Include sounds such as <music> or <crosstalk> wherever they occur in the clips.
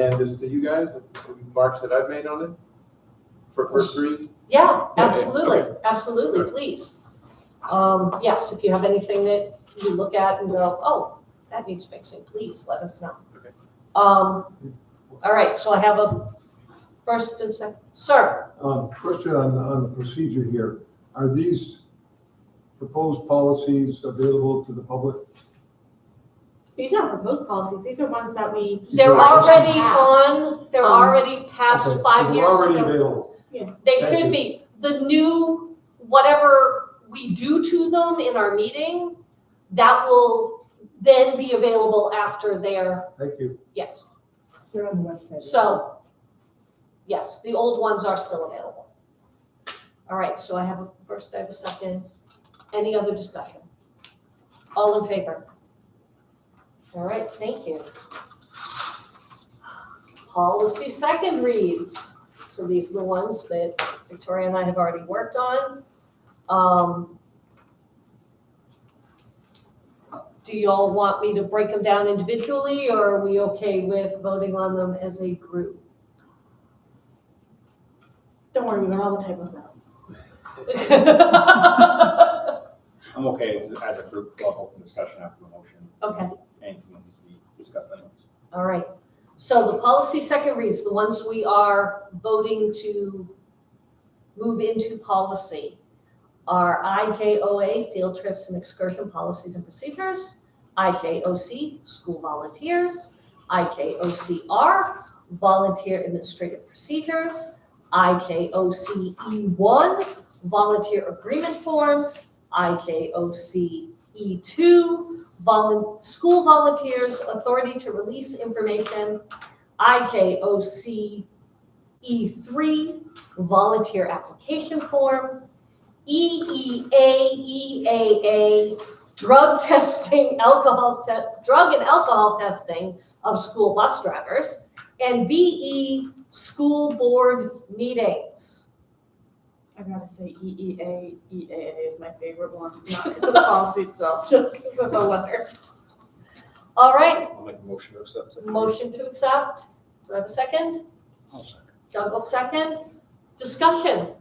hand this to you guys, the marks that I've made on it for first read. Yeah, absolutely, absolutely, please. Um, yes, if you have anything that you look at and go, oh, that needs fixing, please let us know. Okay. Um, all right, so I have a first and second, sir, Um, Question on, on the procedure here. Are these proposed policies available to the public? These aren't proposed policies, these are ones that we, they're These are- already Passed. on, they're Um, already Okay, past so five they're years Already ago. available. They Thank should you. be. The new, whatever we do to them in our meeting, that will then be available after their, Thank you. yes. They're on the website. So, yes, the old ones are still available. All right, so I have a first, I have a second. Any other discussion? All in favor? All right, thank you. Policy second reads. So these are the ones that Victoria and I have already worked on. Um, Do you all want me to break them down individually, or are we okay with voting on them as a group? <laughs> don't worry, we got all the typos out. Okay, I'm okay as, as a group, we'll have open discussion after the motion, anything that needs to be discussed anyways. all right. So the policy second reads, the ones we are voting to move into policy are IJOA, field trips and excursion policies and procedures, IJOC, school volunteers, IJOCR, volunteer administrative procedures, IJOCE1, E volunteer agreement forms, E IJOCE2, volun, school volunteers, authority to release information, IJOC E3, E volunteer application form, E EEA, EAA, E drug <laughs> testing, alcohol, te- drug and alcohol testing of school bus drivers, and BE, school board meetings. I gotta say, E EEA, EAA is my favorite <laughs> one, not because of the policy itself, just because of the letter. All right, I'll make a motion to accept. it. motion to accept. Do I have a second? I'll second. Doug will second. Discussion.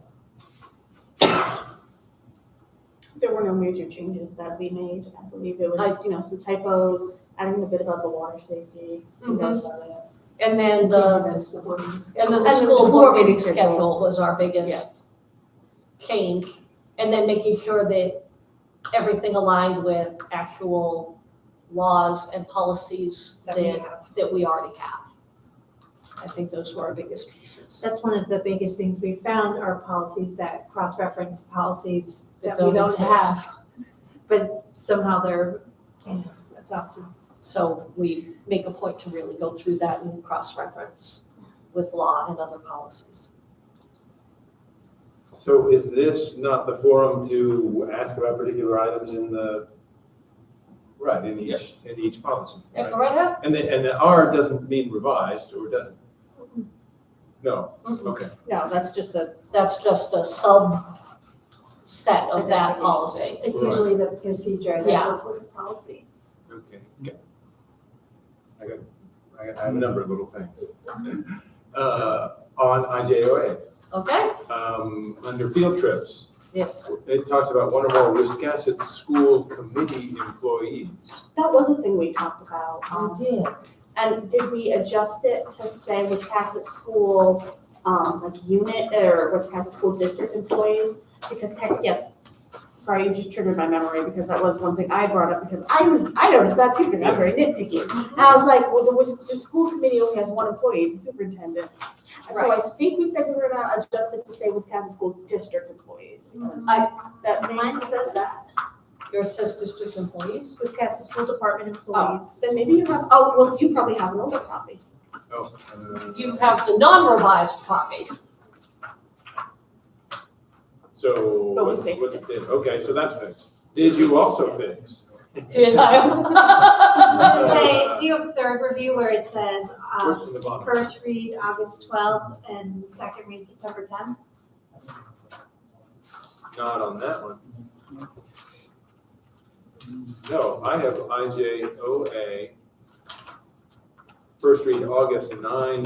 There were no major changes that we made, I believe it was, you know, some typos, adding a bit about the water safety. you know, about it. And then Mm-hmm. And changing the, school board meetings. and then the And school board meeting schedule was our biggest Yes, change. And then making sure that everything aligned with actual laws and policies That we that, have. that we already have. I think those were our biggest pieces. That's one of the biggest things we found are policies that cross-reference policies That that we don't don't exist. have. But somehow they're, you know, adopted. So we make a point to really go through that and cross-reference with law and other policies. So is this not the forum to ask about particular items in the, right, in each, in each policy? Yeah, right? go right ahead. And the, and the R doesn't mean revised, or does it? No, Mhm. okay. no, that's just a, That's just a subset of that Identification. policy. It's Right. usually the procedure that Yeah. goes with the policy. Okay. I got, I got I have a number of little things. Uh, on IJOA, Okay, um, under field trips, yes. it talks about one or more Wiscasset school committee employees. that was a thing we talked about. um, did. And did we adjust it to say Wiscasset School, um, like unit or Wiscasset School District employees? Because tech, yes, sorry, you just triggered my memory because that was one thing I brought up because I was, I noticed that too because I'm very nitpicky. And I was like, well, the, Wis- the school committee only has one employee, it's a superintendent. And so I think we said we were gonna adjust it to say Wiscasset School District employees because I- that Mine makes, says that, Your says district employees? Wisconsin School Department oh, employees. then maybe you have, oh, well, you probably have an older copy. Oh. uh, You have the non-revised copy. So, But Oh, we what's, fixed what's, okay, so that's fixed. Did you also fix? Did <laughs> I? Does it say, do you have third review where it says, Where's um, from the bottom? first read August twelfth and second read September tenth? Not on that one. No, I have IJOA First read August 9,